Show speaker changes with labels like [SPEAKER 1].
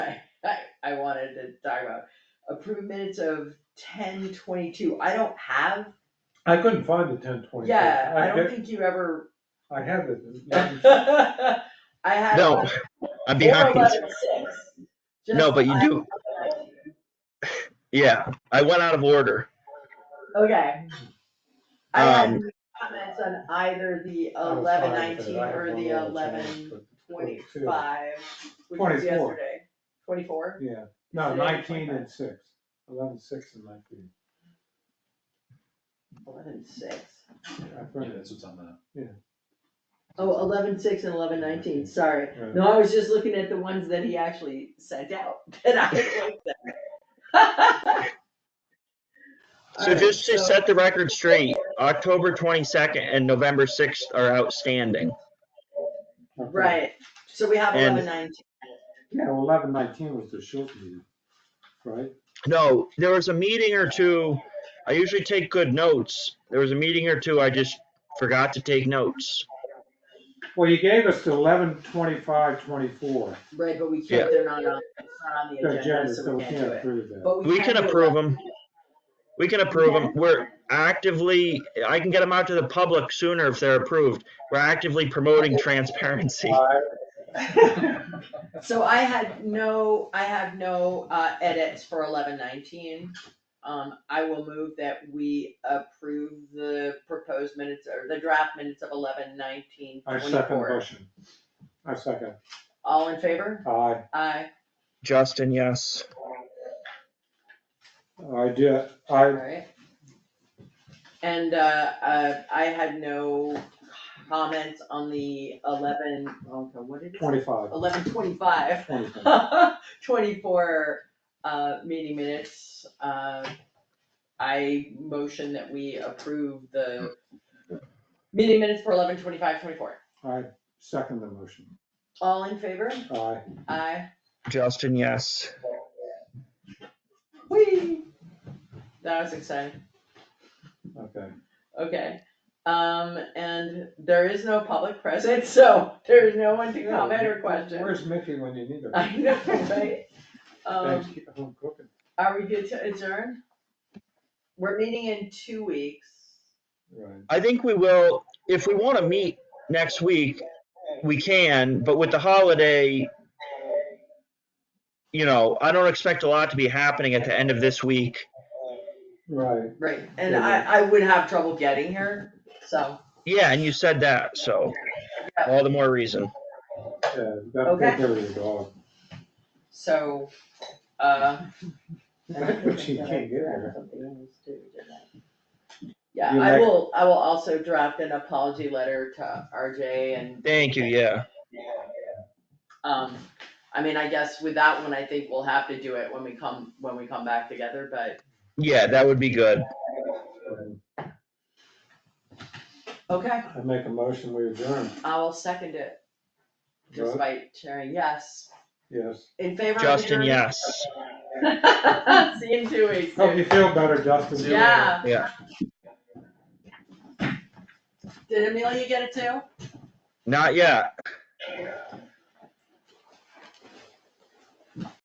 [SPEAKER 1] I wanted to talk about. Approved minutes of ten twenty-two, I don't have,
[SPEAKER 2] I couldn't find the ten twenty.
[SPEAKER 1] yeah, I don't think you ever.
[SPEAKER 2] I have it.
[SPEAKER 1] I had.
[SPEAKER 3] No, I'd be happy.
[SPEAKER 1] Four
[SPEAKER 3] to-
[SPEAKER 1] eleven six.
[SPEAKER 3] No, but you
[SPEAKER 1] Just-
[SPEAKER 3] do. Yeah, I went out of order.
[SPEAKER 1] Okay. I had
[SPEAKER 3] Um,
[SPEAKER 1] no comments on either the
[SPEAKER 2] I was
[SPEAKER 1] eleven
[SPEAKER 2] fine with it.
[SPEAKER 1] nineteen
[SPEAKER 2] I had
[SPEAKER 1] or
[SPEAKER 2] one
[SPEAKER 1] the
[SPEAKER 2] little
[SPEAKER 1] eleven
[SPEAKER 2] change, but-
[SPEAKER 1] twenty-five, which was
[SPEAKER 2] 24.
[SPEAKER 1] yesterday. Twenty-four?
[SPEAKER 2] Yeah, no,
[SPEAKER 1] Today,
[SPEAKER 2] nineteen
[SPEAKER 1] 25.
[SPEAKER 2] and six. Eleven, six and nineteen.
[SPEAKER 1] Eleven six.
[SPEAKER 2] I
[SPEAKER 4] Yeah,
[SPEAKER 2] printed it.
[SPEAKER 4] that's what's on the.
[SPEAKER 2] Yeah.
[SPEAKER 1] Oh, eleven six and eleven nineteen, sorry. No, I was just looking at the ones that he actually sent out that I looked at.
[SPEAKER 3] So just to set the record straight, October twenty-second and November sixth are outstanding.
[SPEAKER 2] Okay.
[SPEAKER 1] Right, so we have
[SPEAKER 3] And-
[SPEAKER 1] eleven nineteen.
[SPEAKER 2] Yeah, well, eleven, nineteen was the short meeting, right?
[SPEAKER 3] No, there was a meeting or two. I usually take good notes. There was a meeting or two I just forgot to take notes.
[SPEAKER 2] Well, you gave us the eleven, twenty-five, twenty-four.
[SPEAKER 1] Right, but we
[SPEAKER 3] Yeah.
[SPEAKER 1] can't, they're not on, it's not on the agenda, so we can't do it.
[SPEAKER 2] approve that.
[SPEAKER 1] But
[SPEAKER 3] We can
[SPEAKER 1] do
[SPEAKER 3] approve them. We can approve them. We're actively, I can get them out to the public sooner if they're approved. We're actively promoting transparency.
[SPEAKER 1] So I had no, I have no uh, edits for eleven nineteen. Um, I will move that we approve the proposed minutes or the draft minutes of eleven nineteen
[SPEAKER 2] I second the
[SPEAKER 1] twenty-four.
[SPEAKER 2] motion. I second.
[SPEAKER 1] All in favor?
[SPEAKER 2] Aye.
[SPEAKER 1] Aye.
[SPEAKER 3] Justin, yes.
[SPEAKER 2] I did, I,
[SPEAKER 1] Alright. And, uh, uh, I had no comments on the eleven, okay, what did it say?
[SPEAKER 2] twenty-five,
[SPEAKER 1] Eleven twenty-five.
[SPEAKER 2] twenty-five.
[SPEAKER 1] twenty-four uh meeting minutes. Uh, I motion that we approve the meeting minutes for eleven twenty-five twenty-four.
[SPEAKER 2] I second the motion.
[SPEAKER 1] All in favor?
[SPEAKER 2] Aye.
[SPEAKER 1] Aye.
[SPEAKER 3] Justin, yes.
[SPEAKER 1] Whee! That was exciting.
[SPEAKER 2] Okay.
[SPEAKER 1] Okay. Um, and there is no public present, so there is no one to comment or question.
[SPEAKER 2] Where's Mickey when you need her?
[SPEAKER 1] I know, right?
[SPEAKER 2] Thanks,
[SPEAKER 1] Um,
[SPEAKER 2] keep her home cooking.
[SPEAKER 1] are we good to adjourn? We're meeting in two weeks.
[SPEAKER 2] Right.
[SPEAKER 3] I think we will, if we want to meet next week, we can, but with the holiday, you know, I don't expect a lot to be happening at the end of this week.
[SPEAKER 2] Right.
[SPEAKER 1] Right, and
[SPEAKER 2] Yeah,
[SPEAKER 1] I, I would have trouble getting here, so,
[SPEAKER 3] Yeah, and you said that, so all the more reason.
[SPEAKER 2] Yeah, you gotta take
[SPEAKER 1] Okay.
[SPEAKER 2] care of your dog.
[SPEAKER 1] so, uh.
[SPEAKER 2] But she can't get here.
[SPEAKER 1] Yeah,
[SPEAKER 2] You
[SPEAKER 1] I
[SPEAKER 2] like-
[SPEAKER 1] will, I will also draft an apology letter to RJ and,
[SPEAKER 3] Thank you, yeah.
[SPEAKER 1] um, I mean, I guess with that one, I think we'll have to do it when we come, when we come back together, but,
[SPEAKER 3] Yeah, that would be good.
[SPEAKER 2] Right.
[SPEAKER 1] okay,
[SPEAKER 2] I make a motion, we adjourn.
[SPEAKER 1] I will second it,
[SPEAKER 2] Right?
[SPEAKER 1] despite sharing, yes,
[SPEAKER 2] Yes.
[SPEAKER 1] in favor of
[SPEAKER 3] Justin,
[SPEAKER 1] adjourned?
[SPEAKER 3] yes.
[SPEAKER 1] See you in two weeks,
[SPEAKER 2] Hope you
[SPEAKER 1] dude.
[SPEAKER 2] feel better, Justin.
[SPEAKER 1] yeah.
[SPEAKER 3] Yeah.
[SPEAKER 1] Did Amelia get it too?
[SPEAKER 3] Not yet.